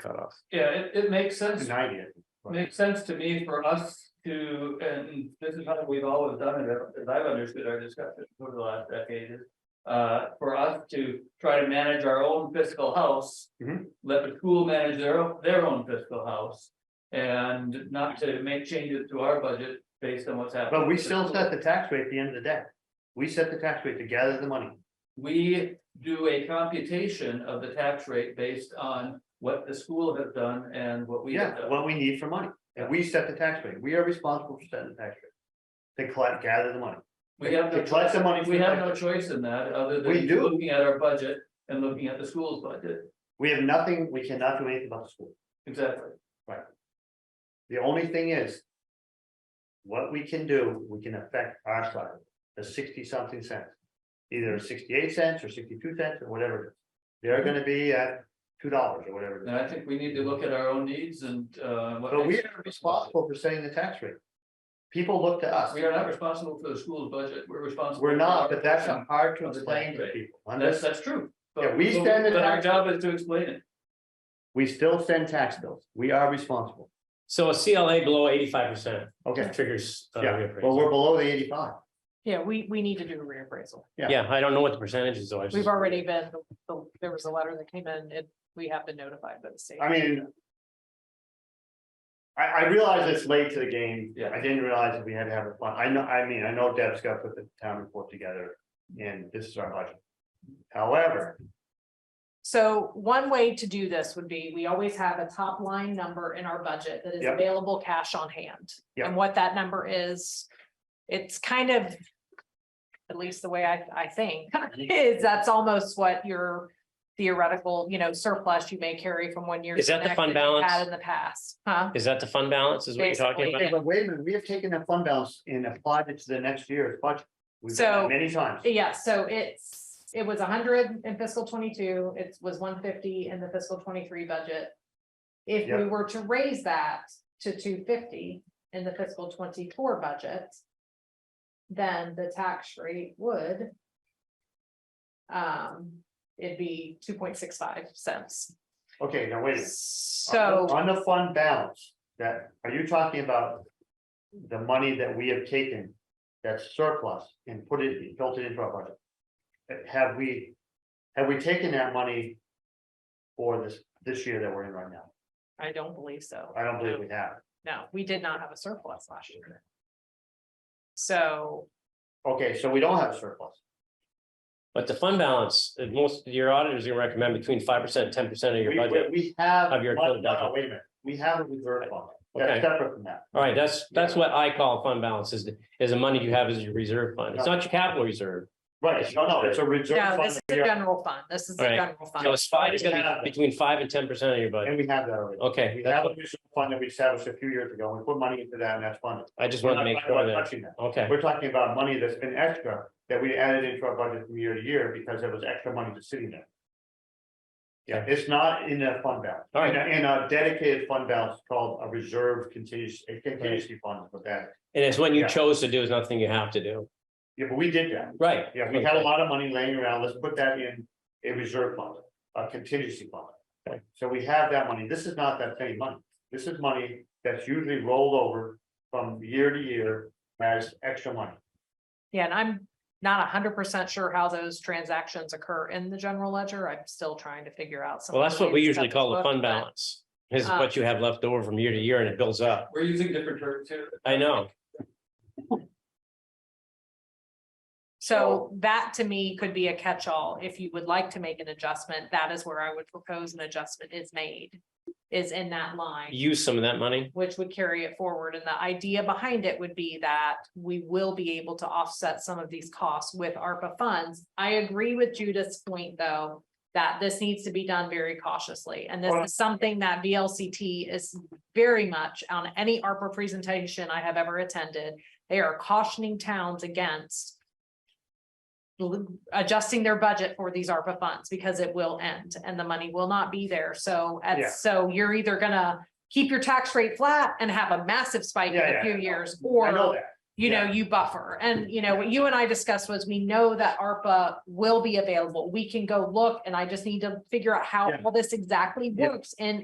cutoff. Yeah, it, it makes sense, Ninety. I think. makes sense to me for us to, and this is how we've always done it, as I've understood our discussion over the last decade. is, Uh, for us to try to manage our own fiscal house. Mhm. Let the school manage their, own- their own fiscal house. And not to make changes to our budget based on what's happening. But we with the still school. set the tax rate at the end of the day. We set the tax rate to gather the money. We do a computation of the tax rate based on what the school has done and what we have Yeah, done. what we need for money. And we set the tax rate. We are responsible for setting the tax rate. To collect, gather the money. We have no To collect the money. We have no choice in that, other than We do. looking at our budget and looking at the school's budget, We have nothing, we cannot do anything about the school. exactly. The only thing is. What we can do, we can affect our side, the sixty something cents. Either sixty-eight cents or sixty-two cents or whatever. it is. They're gonna be at two dollars or whatever. it is. And I think we need to look at our own needs and uh. what But we makes- are responsible for setting the tax rate. People look to us. We are not responsible for the school's budget, we're responsible. We're not, for our- but that's hard to Of the explain to tax rate. people. That's, Unless that's true. But- Yeah, we stand in But our tax- job is to explain it. we still send tax bills, we are responsible. So a CLA below eighty-five percent Okay, triggers. uh, yeah, reappraisal. well, we're below the eighty-five. Yeah, we, we need to do a reappraisal. Yeah, I don't know what the percentage is, though. I was We've just- already been, the- there was a letter that came in and we have been notified by the state. I mean. I, I realize it's late to the game. Yeah. I didn't realize that we had to have a fund. I know, I mean, I know Deb's got to put the town report together and this is our budget. However, So one way to do this would be, we always have a top line number in our budget that is Yep. available cash on hand. Yep. And what that number is, it's kind of, at least the way I, I think, Mm-hmm. is that's almost what your theoretical, you know, surplus you may carry from one year. Is to that the next fund you Had balance? in the past, huh? Is that the fund balance is what you're talking about? Basically, hey, but wait a minute, we have taken that fund balance and applied it to the next year's budget. We've done So- that many times. Yeah, so it's, it was hundred in fiscal twenty-two, it was one fifty in the fiscal twenty-three budget. If we Yeah. were to raise that to two fifty in the fiscal twenty-four budget. Then the tax rate would. Um, it'd be two point six five cents, Okay, now wait uh, a minute. so. On the fund balance, that, are you talking about? The money that we have taken, that's surplus and put it, built it into our budget? Uh, Have we, have we taken that money? For this, this year that we're in right now, I don't believe so. I don't believe we have, No, we did not have a surplus last year. So, okay, so we don't have a surplus, But the fund balance, uh, most, your auditors are gonna recommend between five percent, ten percent of we, your we- budget. we have. Of your no, total no, budget. Wait a minute, we have a reserve fund, that's Okay. separate from that, All right, that's, that's what I call fund balance is, is the money you have as your reserve fund. It's not your capital reserve. right, no, no, it's a reserve no, fund, this is that a we are- general fund, this is a All right. general fund. So it's five, it's gonna be between five and ten percent of your budget. and we have that already. Okay, We that's have a what- reserve fund that we established a few years ago, and we put money into that and that's funded. I just We're wanted not to make talking sure about that, touching that. okay. We're talking about money that's been extra that we added into our budget from year to year because there was extra money just sitting there. Yeah, it's not in a fund balance. All right. In a- In a dedicated fund balance called a reserve contingency, a contingency fund with that. And it's when Yeah. you chose to do is nothing you have to do. Yeah, but we did that. Right. Yeah, we had a lot of money laying around. Let's put that in a reserve fund, a contingency fund. Okay. So we have that money. This is not that same money. This is money that's usually rolled over from year to year as extra money. Yeah, and I'm not hundred percent sure how those transactions occur in the general ledger. I'm still trying to figure out some. Well, that's what we ways to usually cut call the book, fund but- balance, is Uh, what you have left over from year to year and it builds up. We're using different terms here. I know. So that to me could be a catch-all. If you would like to make an adjustment, that is where I would propose an adjustment is made. Is in that line. Use some of that money. which would carry it forward. And the idea behind it would be that we will be able to offset some of these costs with ARPA funds. I agree with Judith's point, though, that this needs to be done very cautiously. And this Well- is something that VLCT is very much on any ARPA presentation I have ever attended. They are cautioning towns against l- adjusting their budget for these ARPA funds because it will end and the money will not be there. So, at- Yeah. so you're either gonna keep your tax rate flat and have a massive spike in Yeah, a yeah, few yeah. years, I know or, that. you know, you buffer. And, you know, what you and I discussed was, we know that ARPA will be available. We can go look, and I just need to figure out how Yeah. all this exactly Yeah. works in